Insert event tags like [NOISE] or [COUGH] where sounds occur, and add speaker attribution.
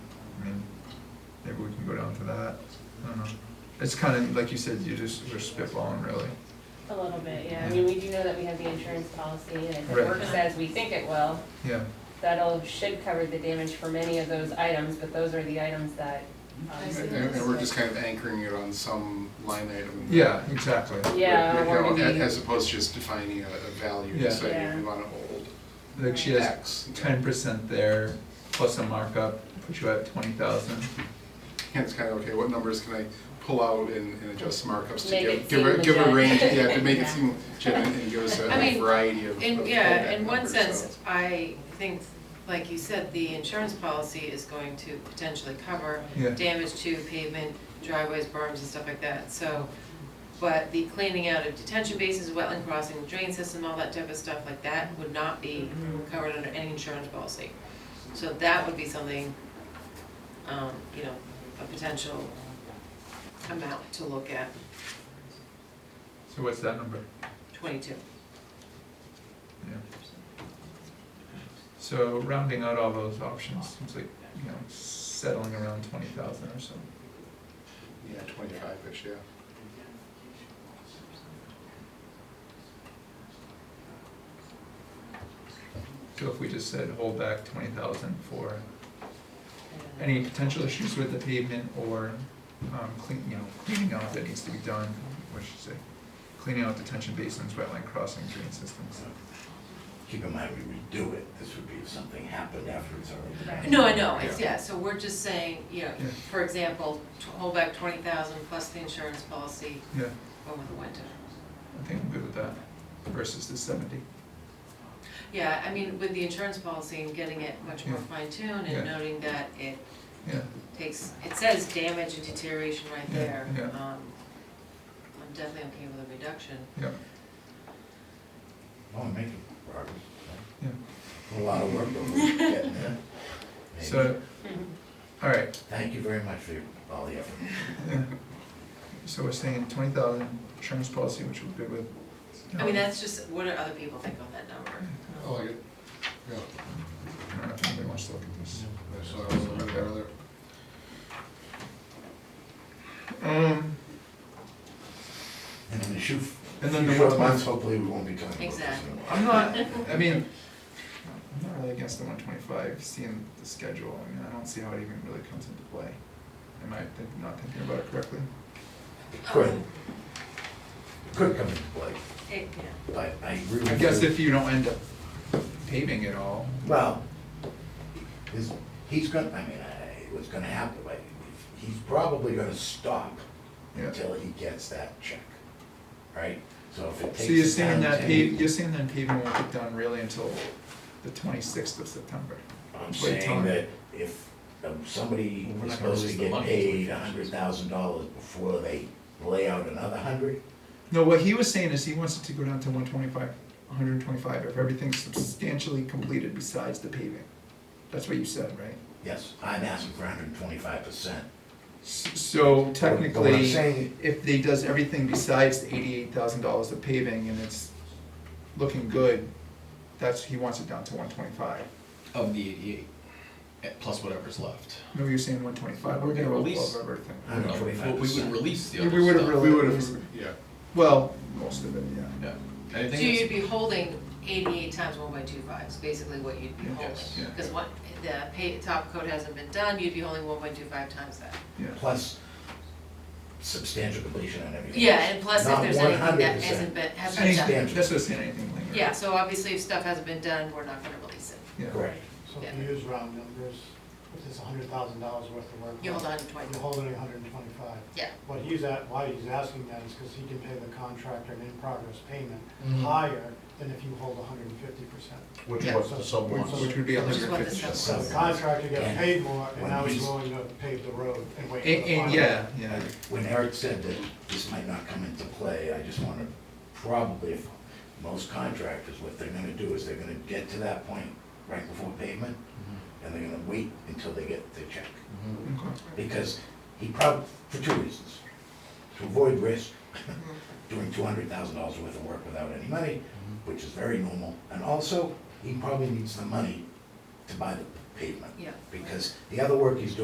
Speaker 1: we can go down for that. I don't know. It's kind of, like you said, you just, we're spitballing really.
Speaker 2: A little bit, yeah. I mean, we do know that we have the insurance policy, and if
Speaker 1: Right.
Speaker 2: it works as we think it will,
Speaker 1: Yeah,
Speaker 2: that'll, should cover the damage for many of those items, but those are the items that,
Speaker 3: I see.
Speaker 2: um,
Speaker 4: And, and we're just kind of anchoring it on some line item.
Speaker 1: yeah, exactly.
Speaker 2: yeah,
Speaker 4: You
Speaker 2: we're
Speaker 4: know,
Speaker 2: gonna be-
Speaker 4: As opposed to just defining a, a value,
Speaker 1: Yeah.
Speaker 4: and saying we
Speaker 2: Yeah.
Speaker 4: wanna hold
Speaker 1: Like she has
Speaker 4: X.
Speaker 1: ten percent there, plus a markup, put you at twenty thousand.
Speaker 4: And it's kind of, okay, what numbers can I pull out and, and adjust markups to
Speaker 2: Make
Speaker 4: give,
Speaker 2: it
Speaker 4: give a,
Speaker 2: seem
Speaker 4: give a
Speaker 2: legit.
Speaker 4: range, yeah, to make it
Speaker 2: Yeah.
Speaker 4: seem legit and and give us a
Speaker 3: I mean,
Speaker 4: variety of.
Speaker 3: In,
Speaker 4: of
Speaker 3: yeah,
Speaker 4: fallback
Speaker 3: in one
Speaker 4: numbers,
Speaker 3: sense,
Speaker 4: so.
Speaker 3: I think, like you said, the insurance policy is going to potentially cover
Speaker 1: Yeah.
Speaker 3: damage to pavement, driveways, berms and stuff like that, so. But the cleaning out of detention bases, wetland crossing, drain system, all that type of stuff like that would not be covered under any insurance policy. So that would be something, um, you know, a potential amount to look at,
Speaker 1: So what's that number?
Speaker 3: twenty-two.
Speaker 1: Yeah. So rounding out all those options seems like, you know, settling around twenty thousand or so.
Speaker 4: Yeah, twenty-five-ish, yeah.
Speaker 1: So if we just said hold back twenty thousand for any potential issues with the pavement or, um, clean, you know, cleaning out that needs to be done, what should I say? Cleaning out detention basins, wetland crossing, drain systems.
Speaker 5: Keep in mind, we would do it, this would be if something happened after it's already done.
Speaker 3: No, I know, it's, yeah, so we're just saying, you know,
Speaker 1: Yeah.
Speaker 3: for example, t- hold back twenty thousand plus the insurance policy
Speaker 1: Yeah,
Speaker 3: over the winter.
Speaker 1: I think I'm good with that versus the seventy.
Speaker 3: Yeah, I mean, with the insurance policy and getting it much more
Speaker 1: Yeah.
Speaker 3: fine tuned
Speaker 1: Yeah.
Speaker 3: and noting that it
Speaker 1: Yeah,
Speaker 3: takes, it says damage and deterioration right
Speaker 1: Yeah,
Speaker 3: there.
Speaker 1: yeah.
Speaker 3: Um, I'm definitely okay with a reduction.
Speaker 1: yeah,
Speaker 5: Oh, I'm making progress.
Speaker 1: yeah.
Speaker 5: A lot of work,
Speaker 3: [LAUGHS]
Speaker 5: but we're getting there. Maybe.
Speaker 1: So, all right,
Speaker 5: Thank you very much for your- all the effort.
Speaker 1: yeah. So we're saying twenty thousand insurance policy, which we're good with.
Speaker 3: I mean, that's just, what do other people think on that number?
Speaker 1: Mm-hmm.
Speaker 4: I like it. Yeah,
Speaker 1: I don't know if anybody wants to look at this.
Speaker 4: that's what I was looking at earlier.
Speaker 1: Um,
Speaker 5: And then the shoe,
Speaker 1: And then the
Speaker 5: short
Speaker 1: wetlands.
Speaker 5: months, hopefully we won't be talking about this
Speaker 3: Exactly.
Speaker 5: anymore.
Speaker 1: I'm not, I mean, I'm not really against the one twenty-five, seeing the schedule, I mean, I don't see how it even really comes into play. Am I think- not thinking about it correctly?
Speaker 5: It Could, it could come into play,
Speaker 3: It, yeah.
Speaker 5: but I agree with you.
Speaker 1: I guess if you don't end up paving it all,
Speaker 5: Well, is, he's gonna, I mean, I, what's gonna happen, like, he's probably gonna stop
Speaker 1: yeah.
Speaker 5: until he gets that check, right? So if it takes.
Speaker 1: So you're
Speaker 5: the
Speaker 1: saying
Speaker 5: town
Speaker 1: that
Speaker 5: 10
Speaker 1: pave, you're saying that paving won't get done really until the twenty-sixth of September?
Speaker 5: I'm
Speaker 1: Wait,
Speaker 5: saying
Speaker 1: time.
Speaker 5: that if um, somebody
Speaker 6: Well, we're
Speaker 5: is
Speaker 6: not gonna
Speaker 5: supposed to
Speaker 6: release the
Speaker 5: get
Speaker 6: money
Speaker 5: paid a
Speaker 6: until we
Speaker 5: hundred
Speaker 6: finish this.
Speaker 5: thousand dollars before they lay out another hundred,
Speaker 1: No, what he was saying is he wants it to go down to one twenty-five, hundred and twenty-five, if everything's substantially completed besides the paving. That's what you said, right?
Speaker 5: yes, I'm asking for hundred and twenty-five percent.
Speaker 1: So
Speaker 5: But what I'm
Speaker 1: technically,
Speaker 5: saying-
Speaker 1: if they does everything besides the eighty-eight thousand dollars of paving and it's looking good, that's, he wants it down to one twenty-five.
Speaker 6: of the eighty-eight, eh, plus whatever's left.
Speaker 1: No, you're saying one twenty-five, we're
Speaker 6: We're
Speaker 1: gonna
Speaker 6: gonna
Speaker 1: roll
Speaker 6: release-
Speaker 1: above everything.
Speaker 5: Hundred and
Speaker 6: No, we
Speaker 5: twenty-five
Speaker 6: would- we would
Speaker 5: percent.
Speaker 6: release the
Speaker 1: We
Speaker 6: other stuff.
Speaker 1: would've released-
Speaker 4: We would have, yeah.
Speaker 1: Well, most of it, yeah.
Speaker 6: Yeah.
Speaker 3: So
Speaker 6: Anything
Speaker 3: you'd
Speaker 6: that's,
Speaker 3: be holding eighty-eight times one point two five is basically what you'd be holding.
Speaker 6: Yes, yeah.
Speaker 3: Because what, the pay, top coat hasn't been done, you'd be holding one point two five times that.
Speaker 1: Yeah.
Speaker 5: Plus substantial completion on everything.
Speaker 3: Yeah, and plus if
Speaker 5: Not
Speaker 3: there's anything that
Speaker 5: 100%.
Speaker 3: hasn't been, hasn't been done.
Speaker 1: Anything, that's what I'm saying, anything lingering.
Speaker 3: Yeah, so obviously if stuff hasn't been done, we're not gonna release it.
Speaker 1: Yeah.
Speaker 5: Correct.
Speaker 7: So if you use round numbers, if it's hundred thousand dollars worth of work.
Speaker 3: You hold on to
Speaker 7: You're
Speaker 3: twenty.
Speaker 7: holding a hundred and twenty-five.
Speaker 3: Yeah.
Speaker 7: What he's at, why he's asking that is because he can pay the contractor an in-progress payment higher than if you hold hundred and fifty percent.
Speaker 6: which
Speaker 3: Yeah.
Speaker 6: was the sub
Speaker 7: Which
Speaker 6: one.
Speaker 7: was-
Speaker 1: Which would be a
Speaker 3: Which is
Speaker 1: hundred
Speaker 3: what
Speaker 1: and
Speaker 3: this
Speaker 1: fifty.
Speaker 3: is.
Speaker 7: So the contractor gets
Speaker 5: And-
Speaker 7: paid more, and
Speaker 5: When
Speaker 7: now he's
Speaker 5: he's-
Speaker 7: willing to pave the road and wait. for
Speaker 1: And,
Speaker 7: the
Speaker 1: and,
Speaker 7: final.
Speaker 1: yeah, yeah,
Speaker 5: When Eric said that this might not come into play, I just wanna, probably, if most contractors, what they're gonna do is they're gonna get to that point right before pavement, and they're gonna wait until they get their check.
Speaker 6: Mm-hmm.
Speaker 1: okay,
Speaker 5: Because he prob, for two reasons, to avoid risk, [LAUGHS] doing two hundred thousand dollars worth of work without any money,
Speaker 6: Mm-hmm.
Speaker 5: which is very normal, and also, he probably needs the money to buy the pavement.
Speaker 3: Yeah.
Speaker 5: Because the other work he's doing